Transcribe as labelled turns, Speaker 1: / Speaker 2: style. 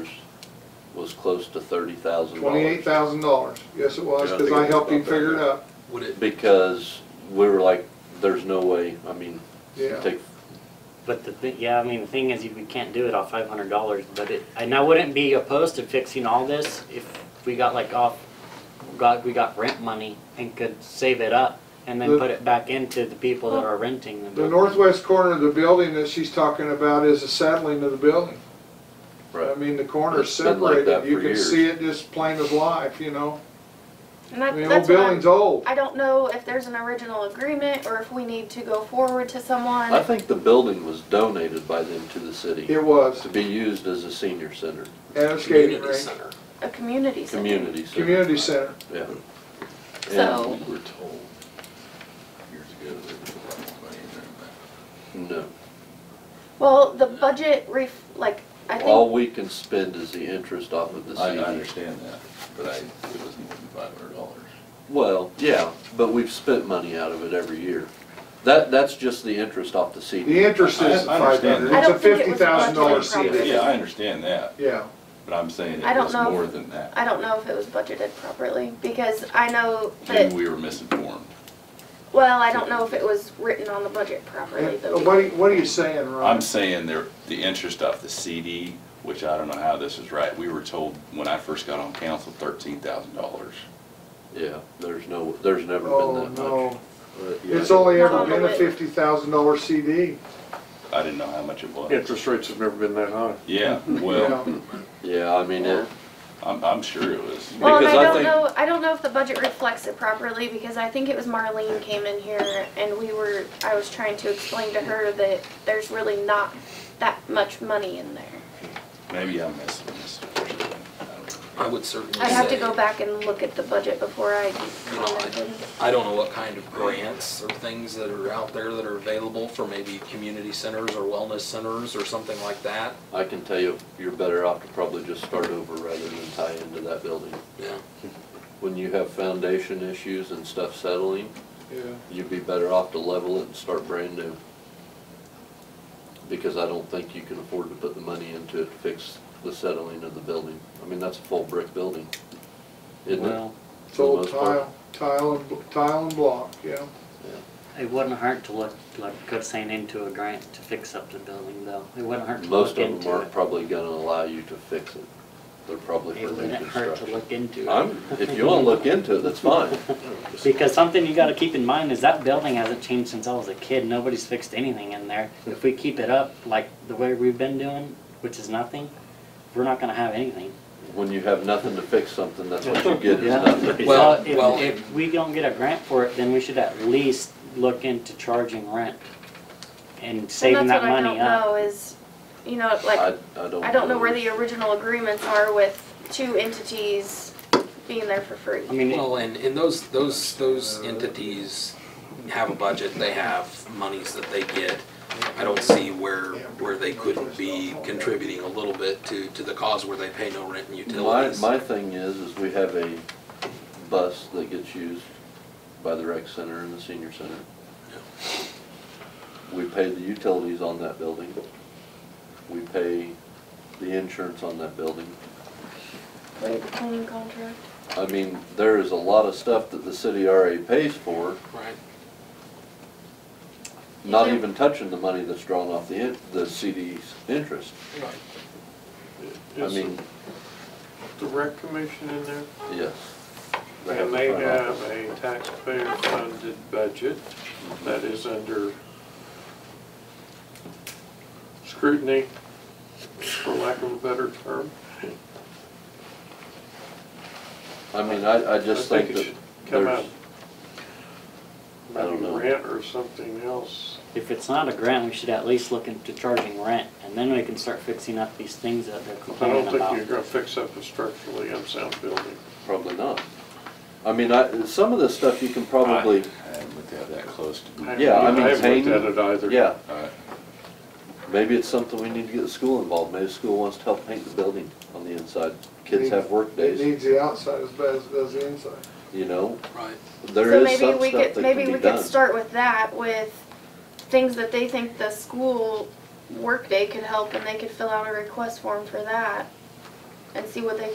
Speaker 1: was close to thirty thousand dollars.
Speaker 2: Twenty-eight thousand dollars, yes it was,
Speaker 1: Yeah, I
Speaker 2: because
Speaker 1: think
Speaker 2: I
Speaker 1: it was
Speaker 2: helped him
Speaker 1: about that,
Speaker 2: figure it
Speaker 1: yeah.
Speaker 2: out,
Speaker 3: Would it,
Speaker 1: Because we were like, there's no way, I mean,
Speaker 2: yeah.
Speaker 1: take,
Speaker 4: But the, thi- yeah, I mean, the thing is, you- we can't do it off five hundred dollars, but it, and I wouldn't be opposed to fixing all this if we got like off, got, we got rent money and could save it up and
Speaker 2: The-
Speaker 4: then put it back into the people that are renting them.
Speaker 2: The northwest corner of the building that she's talking about is the saddling of the building. I
Speaker 1: right,
Speaker 2: mean, the corner's
Speaker 1: It's been like that
Speaker 2: separated, you
Speaker 1: for
Speaker 2: can
Speaker 1: years.
Speaker 2: see it just plain as life, you know?
Speaker 5: And that,
Speaker 2: The old
Speaker 5: that's what I'm,
Speaker 2: building's old.
Speaker 5: I don't know if there's an original agreement or if we need to go forward to someone.
Speaker 1: I think the building was donated by them to the city
Speaker 2: It was,
Speaker 1: to be used as a senior center,
Speaker 2: and a skating
Speaker 3: community
Speaker 2: rink,
Speaker 3: center,
Speaker 5: a community center.
Speaker 1: community center.
Speaker 2: community center.
Speaker 1: Yeah.
Speaker 5: So-
Speaker 6: We were told years ago that there was a lot of money in there, but
Speaker 1: And, No,
Speaker 5: Well, the budget ref, like, I
Speaker 1: all
Speaker 5: think,
Speaker 1: we can spend is the interest off of the
Speaker 6: I I
Speaker 1: CD.
Speaker 6: understand that, but I, it was more than five hundred dollars.
Speaker 1: Well, yeah, but we've spent money out of it every year. That, that's just the interest off the
Speaker 2: The
Speaker 1: CD.
Speaker 2: interest is
Speaker 6: I- I
Speaker 2: five
Speaker 6: understand
Speaker 2: hundred,
Speaker 6: that.
Speaker 2: it's
Speaker 5: I
Speaker 2: a
Speaker 5: don't think it
Speaker 2: fifty
Speaker 5: was a budget
Speaker 2: thousand dollar
Speaker 5: problem.
Speaker 2: CD,
Speaker 6: Yeah, I understand that,
Speaker 2: yeah.
Speaker 6: but I'm saying
Speaker 5: I
Speaker 6: it
Speaker 5: don't
Speaker 6: was
Speaker 5: know if-
Speaker 6: more than that.
Speaker 5: I don't know if it was budgeted properly because I know
Speaker 6: And
Speaker 5: that,
Speaker 6: we were misinformed.
Speaker 5: well, I don't know if it was written on the budget properly
Speaker 2: And uh,
Speaker 5: though.
Speaker 2: What are, you- what are you saying, Ron?
Speaker 6: I'm saying there, the interest off the CD, which I don't know how this is right, we were told when I first got on council, thirteen thousand dollars.
Speaker 1: Yeah, there's no, there's never
Speaker 2: Oh,
Speaker 1: been that much. Uh,
Speaker 2: no, it's only
Speaker 5: Not
Speaker 2: ever
Speaker 5: on the
Speaker 2: been a
Speaker 5: list.
Speaker 2: fifty thousand dollar CD,
Speaker 6: I didn't know how much it was.
Speaker 7: Interest rates have never been that high.
Speaker 6: Yeah, well,
Speaker 2: yeah.
Speaker 1: hmm. Yeah, I mean, it,
Speaker 6: I'm, I'm sure it was.
Speaker 5: Well, and
Speaker 1: Because
Speaker 5: I
Speaker 1: I
Speaker 5: don't
Speaker 1: think-
Speaker 5: know, I don't know if the budget reflects it properly, because I think it was Marlene came in here and we were, I was trying to explain to her that there's really not that much money in there.
Speaker 6: Maybe I'm missing this. I don't know.
Speaker 3: I would certainly say.
Speaker 5: I'd have to go back and look at the budget before I
Speaker 3: No, I-
Speaker 5: commented.
Speaker 3: I don't know what kind of grants or things that are out there that are available for maybe community centers or wellness centers or something like that.
Speaker 1: I can tell you, you're better off to probably just start over rather than tie into that building.
Speaker 3: Yeah.
Speaker 1: When you have foundation issues and stuff settling,
Speaker 2: Yeah.
Speaker 1: you'd be better off to level it and start brand new. Because I don't think you can afford to put the money into it to fix the settling of the building. I mean, that's a full brick building, isn't it?
Speaker 4: Well,
Speaker 2: It's
Speaker 1: For the
Speaker 2: old
Speaker 1: most part.
Speaker 2: tile, tile and, bl- tile and block, yeah.
Speaker 4: it wouldn't hurt to look, like Cook's saying, into a grant to fix up the building though. It wouldn't hurt to
Speaker 1: Most
Speaker 4: look
Speaker 1: of them
Speaker 4: into
Speaker 1: aren't
Speaker 4: it.
Speaker 1: probably gonna allow you to fix it. They're probably
Speaker 4: It
Speaker 1: for new
Speaker 4: wouldn't hurt to
Speaker 1: construction.
Speaker 4: look into it.
Speaker 1: I'm, if you wanna look into it, that's fine.
Speaker 4: Because something you gotta keep in mind is that building hasn't changed since I was a kid. Nobody's fixed anything in there. If we keep it up like the way we've been doing, which is nothing, we're not gonna have anything.
Speaker 1: When you have nothing to fix something, that's what you get is nothing.
Speaker 4: If-
Speaker 3: Well,
Speaker 4: if-
Speaker 3: well-
Speaker 4: If we don't get a grant for it, then we should at least look into charging rent and saving
Speaker 5: And that's
Speaker 4: that
Speaker 5: what I don't
Speaker 4: money up.
Speaker 5: know is, you know,
Speaker 1: I,
Speaker 5: like,
Speaker 1: I don't.
Speaker 5: I don't know where the original agreements are with two entities being there for free.
Speaker 4: I mean,
Speaker 3: Well, and, and those, those, those entities have a budget, they have monies that they get. I don't see where, where they couldn't be contributing a little bit to, to the cause where they pay no rent and
Speaker 1: My,
Speaker 3: utilities.
Speaker 1: my thing is, is we have a bus that gets used by the rec center and the senior center. We pay the utilities on that building. We pay the insurance on that building.
Speaker 5: Wait, the cleaning contract?
Speaker 1: I mean, there is a lot of stuff that the city RA pays for,
Speaker 3: Right.
Speaker 1: not
Speaker 5: Yeah.
Speaker 1: even touching the money that's drawn off the, in- the CD's interest. I
Speaker 7: Is
Speaker 1: mean,
Speaker 7: the rec commission in there?
Speaker 1: yes. They have
Speaker 7: And
Speaker 1: the
Speaker 7: they
Speaker 1: front
Speaker 7: have
Speaker 1: office.
Speaker 7: a taxpayer-funded budget that is under scrutiny, for lack of a better term.
Speaker 1: I mean, I, I just
Speaker 7: I
Speaker 1: think
Speaker 7: think it
Speaker 1: that
Speaker 7: should come
Speaker 1: there's,
Speaker 7: out.
Speaker 1: I don't
Speaker 7: Maybe
Speaker 1: know.
Speaker 7: rent or something else.
Speaker 4: if it's not a grant, we should at least look into charging rent and then we can start fixing up these things that they're
Speaker 7: I
Speaker 4: complaining
Speaker 7: don't
Speaker 4: about.
Speaker 7: think you're gonna fix up a structurally unsound building.
Speaker 1: probably not. I mean, I, some of this stuff you can probably,
Speaker 6: I haven't looked at that close to.
Speaker 7: haven't-
Speaker 1: Yeah, I mean,
Speaker 7: haven't
Speaker 1: Tane-
Speaker 7: looked at it either.
Speaker 1: yeah,
Speaker 6: All right.
Speaker 1: maybe it's something we need to get the school involved. Maybe the school wants to help paint the building on the inside. Kids have work
Speaker 2: It
Speaker 1: days,
Speaker 2: needs the outside as bad as it does the inside.
Speaker 1: you know?
Speaker 3: Right.
Speaker 1: There is some
Speaker 5: So maybe we
Speaker 1: stuff that
Speaker 5: could,
Speaker 1: can
Speaker 5: maybe
Speaker 1: be
Speaker 5: we could
Speaker 1: done.
Speaker 5: start with that, with things that they think the school workday could help, and they could fill out a request form for that. and see what they